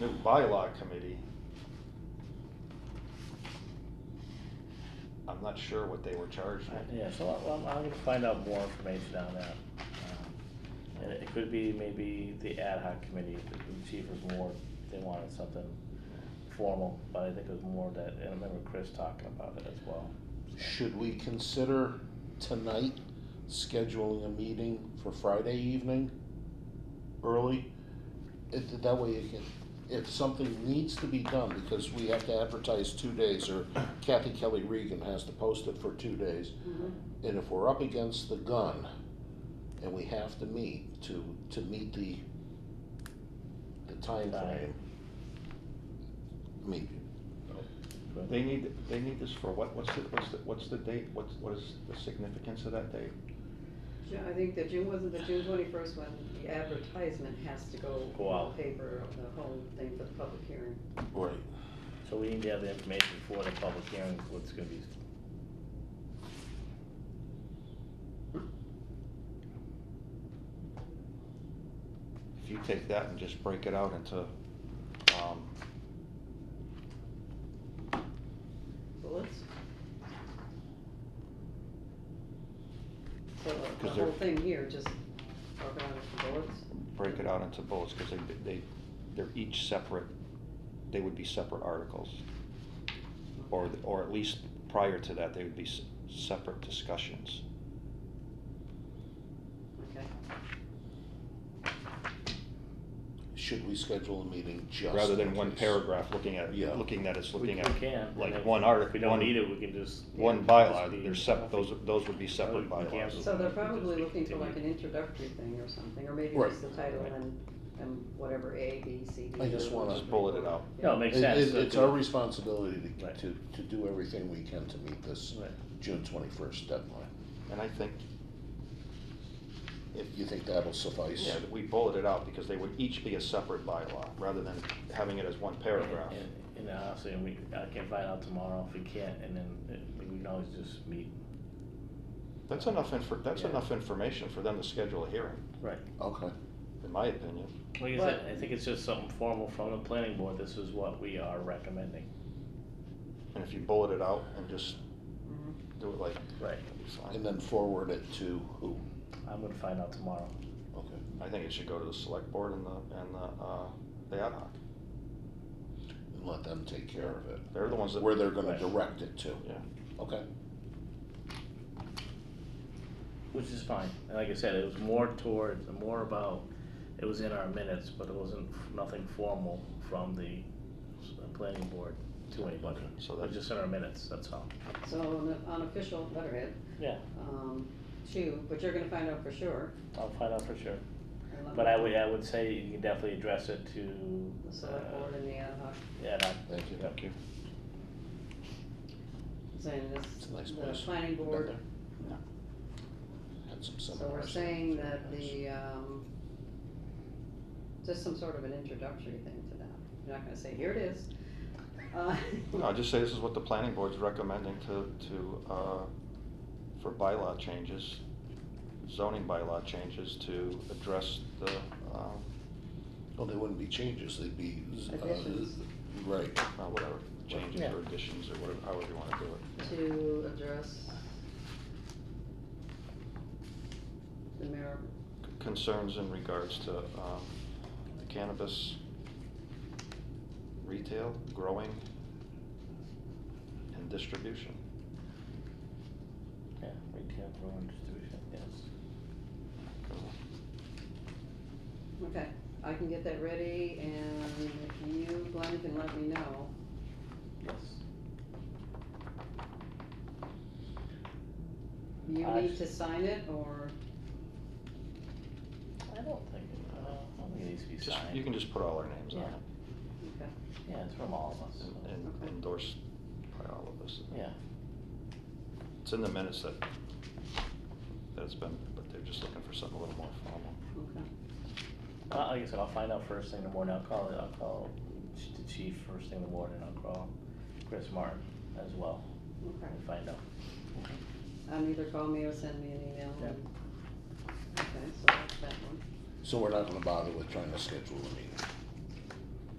new bylaw committee. I'm not sure what they were charged I- with. Yeah, so I- I'm, I'm gonna find out more information on that. Um, And it could be maybe the ad hoc committee, the the chief was more, they wanted something formal, but I think it was more that, and I remember Chris talking about it as well. Should we consider tonight scheduling a meeting for Friday evening, early? It, that way you can, if something needs to be done, because we have to advertise two days, or Kathy Kelly Regan has to post it for two days. And if we're up against the gun, and we have to meet to, to meet the, the timeframe. I mean, But- They need, they need this for what, what's the, what's the, what's the date, what's, what is the significance of that date? Ju- I think the June, wasn't the June twenty-first one, the advertisement has to go in Go out. the paper, the whole thing for the public hearing. right, So we need to have the information for the public hearing, what's gonna be, If you take that and just break it out into, um, Bullets? So the- the 'Cause they're- whole thing here, just around the bullets? break it out into bullets, cause they, they, they're each separate, they would be separate articles. Or, or at least prior to that, they would be s- separate discussions. Okay. should we schedule a meeting just? Rather than in one case? paragraph looking at, Yeah. looking that it's we looking we at can. and like if- one If article. we don't need it, we can just. One bylaw, they're sep, those, those would be separate Oh, you can't. bylaws. So they're we can probably just looking for like an continue. introductory thing or something, or maybe Right. just the title Right. and, and whatever, A, B, C, D. I just or wanna- whatever. Just bullet it out. No, it makes It- sense. it- so It's if our we- responsibility to, Right. to, to do everything we can to meet this Right. June twenty-first deadline. And I think, If you think that'll suffice, yeah, that we bulleted out because they would each be a separate bylaw, rather than having it as one paragraph. And- And and honestly, and we, I can find out tomorrow if we can't, and then uh, we can always just meet. That's enough infor, that's Yeah. enough information for them to schedule a hearing, Right. okay, in my opinion. Like I But- said, I think it's just something formal from the planning board, this is what we are recommending. And if you bullet it out and just Mhm. do it like, Right. it's and fine. then forward it to who? I'm gonna find out tomorrow. Okay. I think it should go to the select board and the, and the, uh, the ad hoc. And let them take care of it, They're the ones that, where they're gonna Right. direct it to, yeah. okay? Which is fine, and like I said, it was more towards, more about, it was in our minutes, but it wasn't, nothing formal from the s- uh, planning board to anybody. So It that- was just in our minutes, that's all. So on the- on official letterhead, Yeah, um, two, but you're gonna find out for sure. I'll find out for sure, and let but me- I would, I would say you can definitely address it to. The select uh, board and the ad hoc, Yeah, that- Thank you. Thank you. saying It's this, a nice the place. planning Been board, there. Had some so we're seminars. saying that the, um, just some sort of an introductory thing to that. You're not gonna say, here it is. Uh, No, just say this is what the planning board's recommending to, to, uh, for bylaw changes, zoning bylaw changes to address the, um, Well, they wouldn't be changes, they'd be, z- Additions. uh, right, uh, whatever, changes Yeah. or additions or whatever, however you wanna do it. to address the mayor, Concerns in regards to, um, cannabis, retail, growing, and distribution. yeah, retail growing distribution, yes. okay, I can get that ready, and if you, Glenn, can let me know. Yes. You I- need to sign it, or, I don't think, it- uh, I don't think it needs to be Just, signed. you can just put all our names on it okay, Yeah, it's from all of us. so- and- and Okay. endorsed by all of us. Yeah, It's in the minutes that, that it's been, but they're just looking for something a little more formal. okay. Uh, like I said, I'll find out first thing in the morning, I'll call, I'll call ch- the chief first thing in the morning, I'll call Chris Martin as well, Okay, and find out. um, either call me or send me an email. Yeah. and- Okay, so that's that one. so we're not gonna bother with trying to schedule a meeting.